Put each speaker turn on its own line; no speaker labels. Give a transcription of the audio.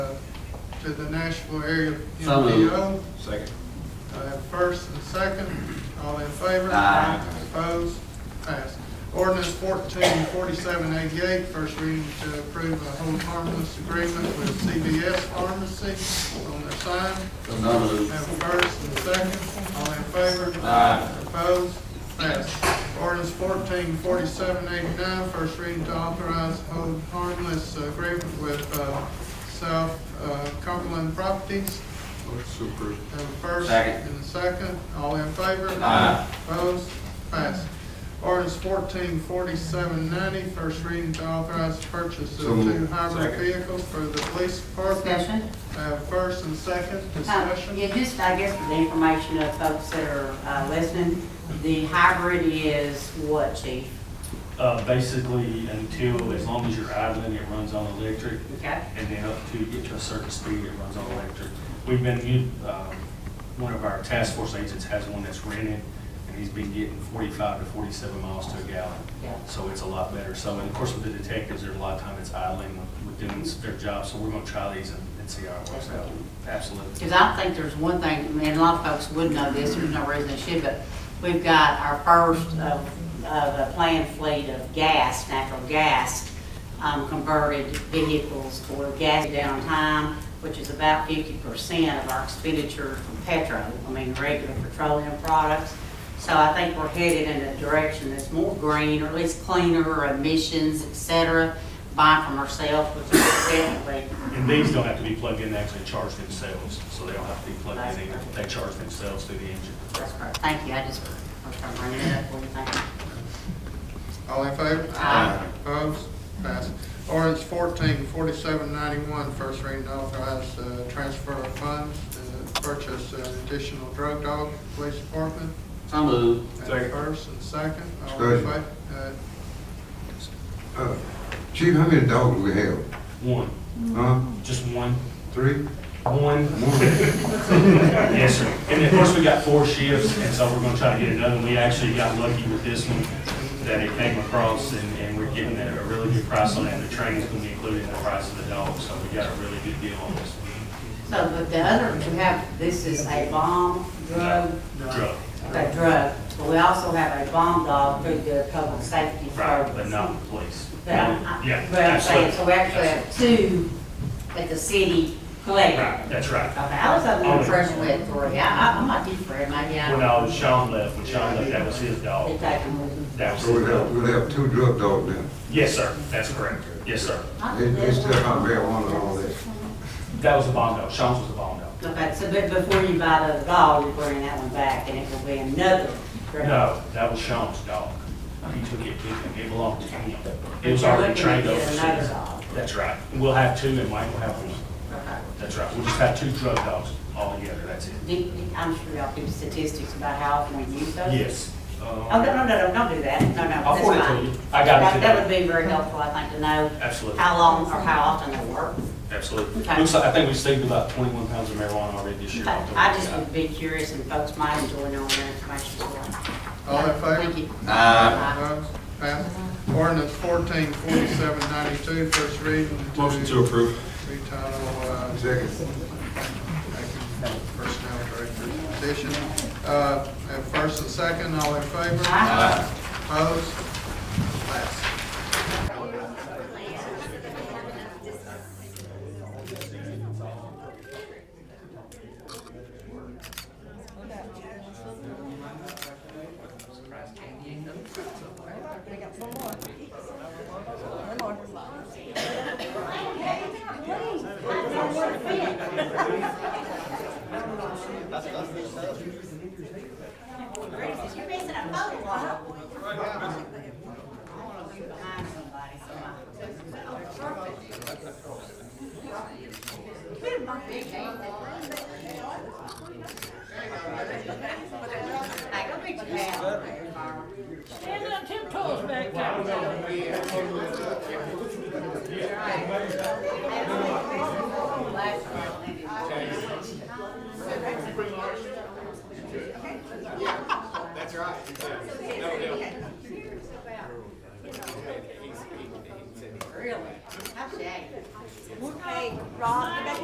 to the Nashville area
So moved.
MPO.
Second.
I have first and second, all in favor?
Aye.
Opposed? Passed. Ordinance fourteen forty-seven eighty-eight, first reading to approve a hold harmless agreement with CBS Pharmacy on their sign.
So moved.
Have a first and a second, all in favor?
Aye.
Opposed? Passed. Ordinance fourteen forty-seven eighty-nine, first reading to authorize hold harmless agreement with, uh, South, uh, Cumberland Properties.
Motion to approve.
Have a first
Second.
and a second, all in favor?
Aye.
Opposed? Passed. Ordinance fourteen forty-seven ninety, first reading to authorize purchase of
So moved.
two hybrid
Second.
vehicles for the police department.
Discussion?
Have a first and second,
Uh,
discussion.
Yeah, just, I guess, for the information of folks that are uh, listening, the hybrid is what, chief?
Uh, basically, until, as long as you're idling, it runs on electric,
Okay?
and then up to, get to a certain speed, it runs on electric. We've been, u- um, one of our task force agents has one that's rented, and he's been getting forty-five to forty-seven miles to a gallon.
Yeah.
So it's a lot better. So, and of course, with the detectives, there's a lot of time it's idling with- with doing their job, so we're gonna try these and and see how it works out. Absolutely.
Because I think there's one thing, I mean, a lot of folks would know this, there's no reason they should, but we've got our first of, of a planned fleet of gas, natural gas, um, converted vehicles for gas downtime, which is about fifty percent of our expenditure from petrol, I mean, regular petroleum products. So I think we're headed in a direction that's more green, or at least cleaner, emissions, et cetera, buying from ourselves, which is definitely
And these don't have to be plugged in, they actually charge themselves, so they don't have to be plugged in either. They charge themselves through the engine.
That's correct. Thank you, I just, I was trying to bring it up for you, thank you.
All in favor?
Aye.
Opposed? Passed. Ordinance fourteen forty-seven ninety-one, first reading to authorize uh, transfer of funds to purchase an additional drug dog for police department.
So moved.
And
Second.
First and second, all in favor?
Discussion.
Uh,
Uh, Chief, how many dogs we have?
One,
Huh?
just one.
Three?
One.
One?
Yes, sir. And of course, we got four shifts, and so we're gonna try to get another. one. We actually got lucky with this one, that it came across, and, and we're getting a a really good price on it. and The training's gonna be included in the price of the dog, so we got a really good deal on this one.
So, but the other, we have, this is a bomb drug.
Drug.
A drug, but we also have a bomb dog through the public safety service.
Right, but not the police.
But I'm-
Yeah,
but I'm saying,
absolutely.
so we actually have two that the city collected.
Right, that's right.
Okay, I was under the
Only.
impression we had three, I, I- I'm not deep for it, maybe I.
When uh, Sean left, when Sean left, that was his
They
dog.
take them with them.
That was
So
his
we have,
dog.
we have two drug dogs now.
Yes, sir. That's correct. Yes, sir.
I
They,
don't
they
know.
still not marijuana and all that.
That was the bond dog. Sean's was the bond dog.
Okay, so, but before you buy the dog, you're bringing that one back, and it will be another drug.
No, that was Sean's dog. He took it with him, it belonged to him. It was already trained
Another
overseas.
dog.
That's right. And We'll have two and Mike will have one.
Okay.
That's right. We'll just have two drug dogs all together, that's it.
Do- do- I'm sure y'all do statistics about how often we use those.
Yes. Um,
Oh, no, no, no, no, don't do that, no, no, that's fine.
I'll forward it to you. I got it
That- That would
today.
be very helpful, I think, to know
Absolutely,
how long or how often they work.
absolutely.
Okay.
Looks like, I think we saved about twenty-one pounds of marijuana already this year.
But I just would be curious, and folks might enjoy knowing that information. as well.
uh, All in favor?
Thank you.
Aye.
Opposed? Passed. Ordinance fourteen forty-seven ninety-two, first reading to.
Motion to approve.
Be titled, uh,
Second.
Personnel Director's position. Uh, Have first and second, all in favor?
Aye.
Opposed? Passed.
You're missing a photo op. Find somebody, somebody.